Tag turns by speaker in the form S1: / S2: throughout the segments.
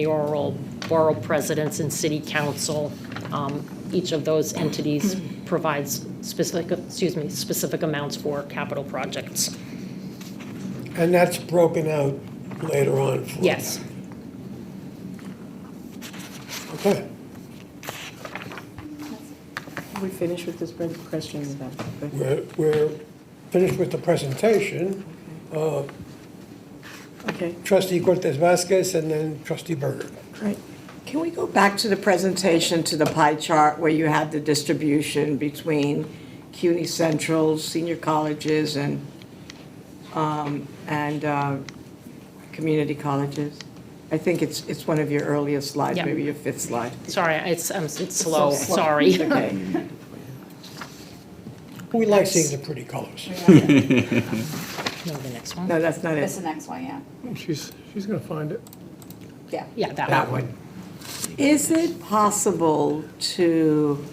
S1: mayoral, borough presidents, and city council. Um, Each of those entities provides specific, excuse me, specific amounts for capital projects.
S2: And that's broken out later on for
S1: Yes,
S2: Okay.
S3: We finish with this pre- question then? okay?
S2: We're, we're finished with the presentation.
S3: Okay,
S2: Trustee Cortez Vasquez and then trustee Berger.
S3: great.
S4: Can we go back to the presentation, to the pie chart where you had the distribution between CUNY Central, senior colleges, and, um, and uh, community colleges? I think it's, it's one of your earliest slides,
S1: Yeah.
S4: maybe your fifth slide.
S1: sorry, it's, um, it's
S3: so
S1: slow,
S3: slow.
S1: sorry.
S4: Okay.
S2: We like seeing the pretty colors.
S1: No, the next one.
S4: No, that's not
S5: That's
S4: it.
S5: the next one, yeah.
S6: Oh, She's, she's going to find it.
S5: Yeah.
S1: Yeah, that
S2: That
S1: one.
S2: one.
S4: Is it possible to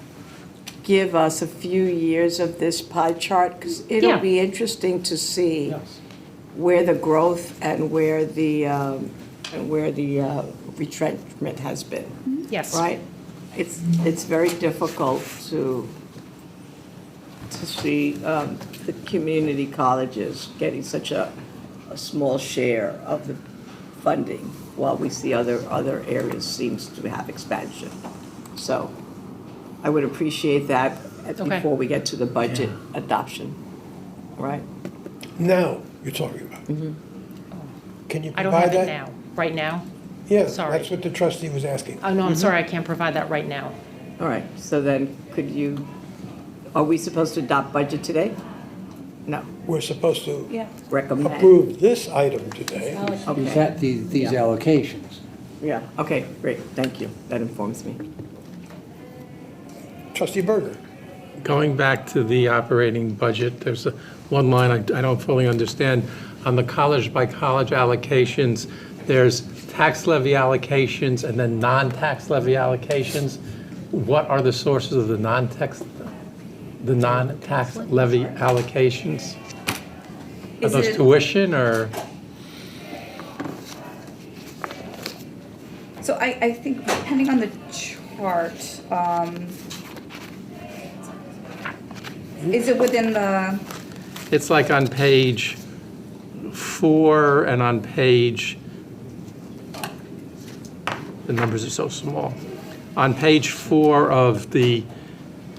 S4: give us a few years of this pie chart? Because
S1: Yeah.
S4: it'll be interesting to see. where the growth and where the, um, and where the uh, retrenchment has been,
S1: Yes.
S4: right? It's, it's very difficult to, to see um, the community colleges getting such a, a small share of the funding, while we see other, other areas seems to have expansion. So I would appreciate that uh,
S1: Okay.
S4: before we get to the budget adoption, all right?
S2: Now you're talking about. Can you
S1: Mm-hmm. I don't
S2: provide
S1: have
S2: that?
S1: it now, right now.
S2: Yeah,
S1: Sorry.
S2: that's what the trustee was asking.
S1: Oh, no, I'm sorry, I can't provide that right now.
S4: All right, so then, could you, are we supposed to adopt budget today? No,
S2: We're supposed to
S3: Yeah.
S4: recommend.
S2: approve this item today.
S7: Is
S4: Okay,
S7: that these, these allocations?
S4: yeah, okay, great, thank you, that informs me.
S2: Trustee Berger.
S6: Going back to the operating budget, there's a- one line I I don't fully understand. On the college-by-college allocations, there's tax levy allocations and then non-tax levy allocations. What are the sources of the non-tax, the non-tax levy allocations? Are
S4: Is
S6: those
S4: it-
S6: tuition or?
S5: So I, I think depending on the chart, um, is it within the,
S6: It's like on page four and on page, the numbers are so small. On page four of the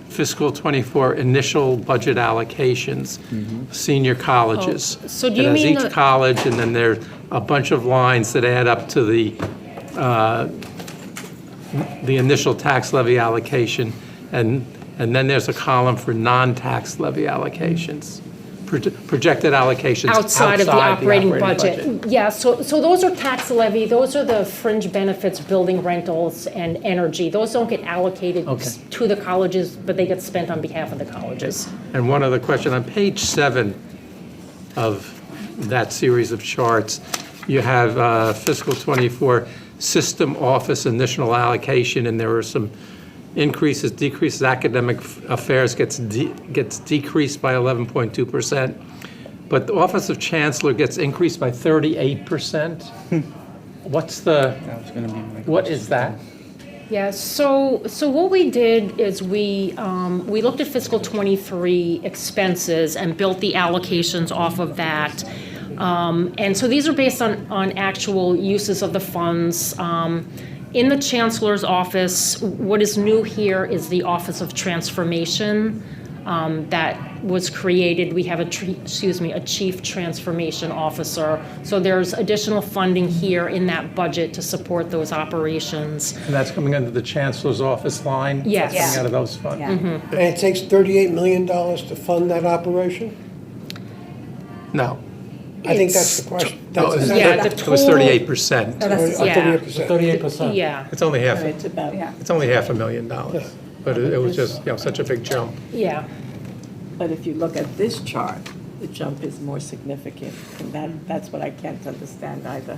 S6: fiscal '24 initial budget allocations, senior colleges.
S1: Oh, so do you
S6: It
S1: mean
S6: has
S1: the-
S6: each college, and then there's a bunch of lines that add up to the, uh, the initial tax levy allocation, and, and then there's a column for non-tax levy allocations, proj- projected allocations
S1: outside of the operating budget. Yeah, so, so those are tax levy, those are the fringe benefits, building rentals and energy. Those don't get allocated
S6: Okay.
S1: to the colleges, but they get spent on behalf of the colleges.
S6: And one other question, on page seven of that series of charts, you have uh, fiscal '24 system office initial allocation, and there are some increases, decreases, academic affairs gets, de- gets decreased by 11.2%, but the Office of Chancellor gets increased by 38%. What's the, what is that?
S1: Yeah, so, so what we did is we, um, we looked at fiscal '23 expenses and built the allocations off of that. Um, And so these are based on, on actual uses of the funds. Um, In the chancellor's office, what is new here is the Office of Transformation um, that was created. We have a, tr- excuse me, a chief transformation officer. So there's additional funding here in that budget to support those operations.
S6: And that's coming under the Chancellor's office line?
S1: Yes.
S6: That's Coming out of those funds?
S5: yeah,
S2: And it takes $38 million to fund that operation?
S6: No.
S2: I think that's the question. That's
S6: No, it was
S2: exactly-
S1: Yeah,
S6: thir-
S1: the
S6: It was
S1: total-
S6: thirty-eight percent.
S5: Oh, that's-
S2: Uh,
S1: yeah.
S2: 38%.
S7: Thirty-eight percent.
S1: Yeah,
S6: It's only half,
S4: It's about.
S5: yeah.
S6: it's only half a million dollars, but it it was just, you know, such a big jump.
S1: yeah.
S4: But if you look at this chart, the jump is more significant, and that, that's what I can't understand either.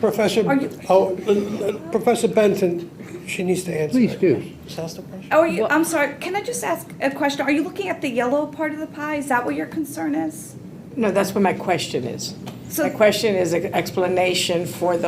S2: Professor,
S5: Are you-
S2: oh, uh, uh, Professor Benson, she needs to answer.
S7: Please
S2: it.
S7: do.
S5: Oh, are you, I'm sorry, can I just ask a question? Are you looking at the yellow part of the pie? Is that what your concern is?
S4: No, that's what my question is.
S5: So-
S4: My question is an explanation for the